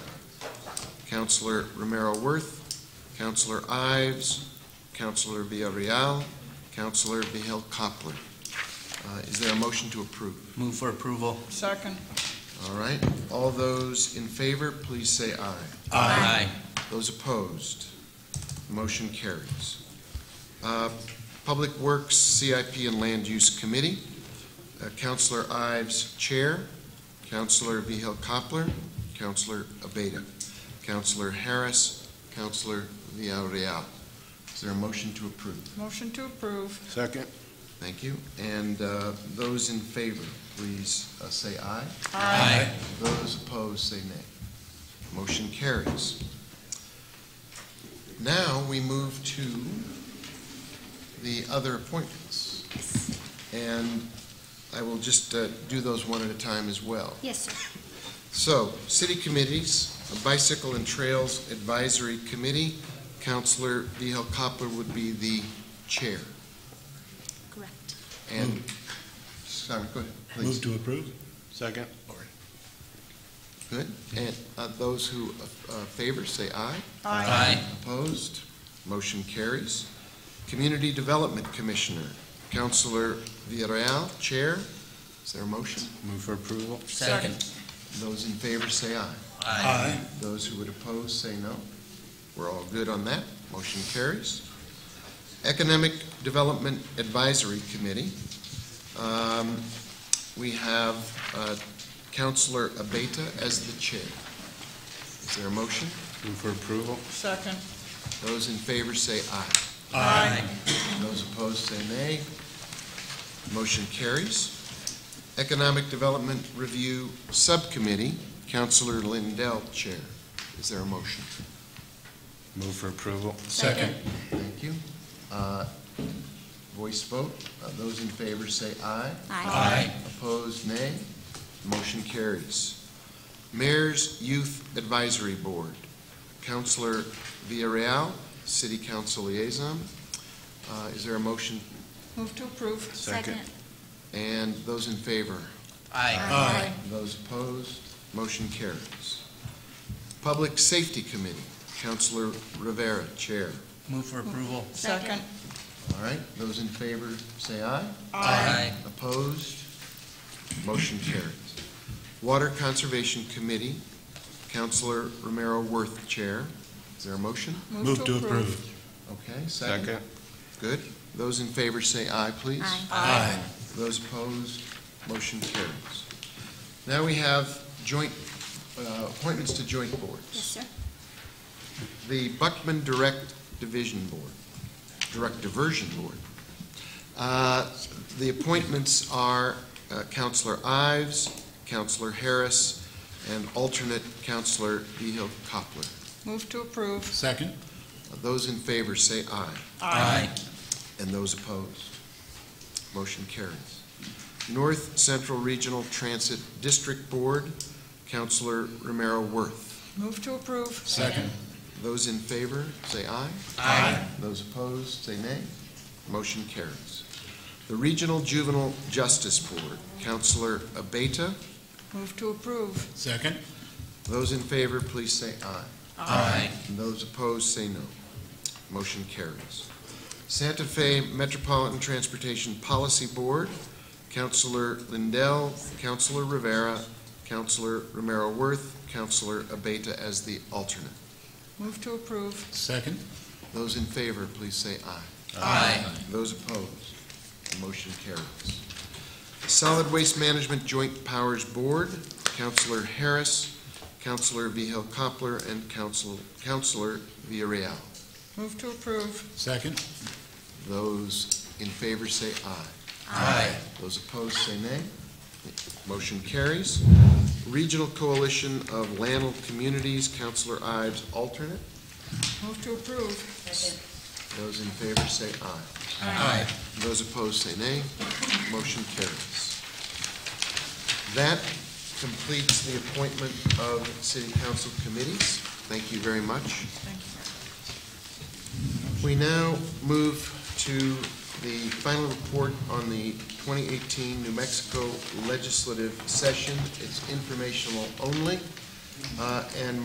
Counselor Romero Worth, Counselor Ives, Counselor Villarreal, Counselor Vihel Coppler. Uh, Is there a motion to approve? Move for approval. Second. All right, all those in favor, please say aye. Aye. Those opposed, motion carries. Uh, Public Works, CIP, and Land Use Committee, Uh, Counselor Ives, Chair, Counselor Vihel Coppler, Counselor Abeta, Counselor Harris, Counselor Villarreal. Is there a motion to approve? Motion to approve. Second. Thank you. And uh, those in favor, please uh, say aye. Those opposed, say nay. Motion carries. Now, we move to the other appointments. And I will just uh, do those one at a time as well. Yes, sir. So, city committees, Bicycle and Trails Advisory Committee, Counselor Vihel Koppler would be the chair. Correct. And, Simon, go ahead, please. Mm. to approve. Second. Good. And uh, those who uh, favor, say aye. Aye. Opposed? Motion carries. Community Development Commissioner, Counselor Villarreal, Chair. Is there a motion? Move for approval. Second. Those in favor say aye. Aye. Those who would oppose say no. We're all good on that. Motion carries. Economic Development Advisory Committee. Um, We have uh, Counselor Abeta as the chair. Is there a motion? Move for approval. Second. Those in favor say aye. Aye. Those opposed say nay. Motion carries. Economic Development Review Subcommittee, Counselor Lindell, Chair. Is there a motion? Move for approval. Second. Thank you. Uh, Voice vote. Uh, Those in favor say aye. Aye. Opposed, nay. Motion carries. Mayor's Youth Advisory Board, Counselor Villarreal, City Council Liaison. Uh, Is there a motion? Move to approve. Second. And those in favor? Aye. Aye. Those opposed, motion carries. Public Safety Committee, Counselor Rivera, Chair. Move for approval. Second. All right, those in favor, say aye. Aye. Opposed, motion carries. Water Conservation Committee, Counselor Romero Worth, Chair. Is there a motion? Move to approve. Okay, second. Second. Good. Those in favor, say aye, please. Aye. Aye. Those opposed, motion carries. Now we have joint, uh, appointments to joint boards. Yes, sir. the Buckman Direct Division Board, Direct Diversion Board. Uh, The appointments are uh, Counselor Ives, Counselor Harris, and alternate Counselor Vehil Coppler. Move to approve. Second. Those in favor say aye, Aye. and those opposed. Motion carries. North Central Regional Transit District Board, Counselor Romero Worth. Move to approve. Second. Those in favor say aye. Aye. Those opposed, say nay. Motion carries. The Regional Juvenile Justice Board, Counselor Abeta. Move to approve. Second. Those in favor, please say aye. Aye. And those opposed, say no. Motion carries. Santa Fe Metropolitan Transportation Policy Board, Counselor Lindell, Counselor Rivera, Counselor Romero Worth, Counselor Abeta as the alternate. Move to approve. Second. Those in favor, please say aye. Aye. Those opposed, the motion carries. Solid Waste Management Joint Powers Board, Counselor Harris, Counselor Vihel Coppler, and Counsel, Counselor Villarreal. Move to approve. Second. Those in favor say aye. Aye. Those opposed say nay. Motion carries. Regional Coalition of Lanel Communities, Counselor Ives, alternate. Move to approve. Those in favor say aye. Aye. Those opposed say nay. Motion carries. That completes the appointment of city council committees. Thank you very much. Thank you. We now move to the final report on the 2018 New Mexico legislative session. It's informational only, uh, and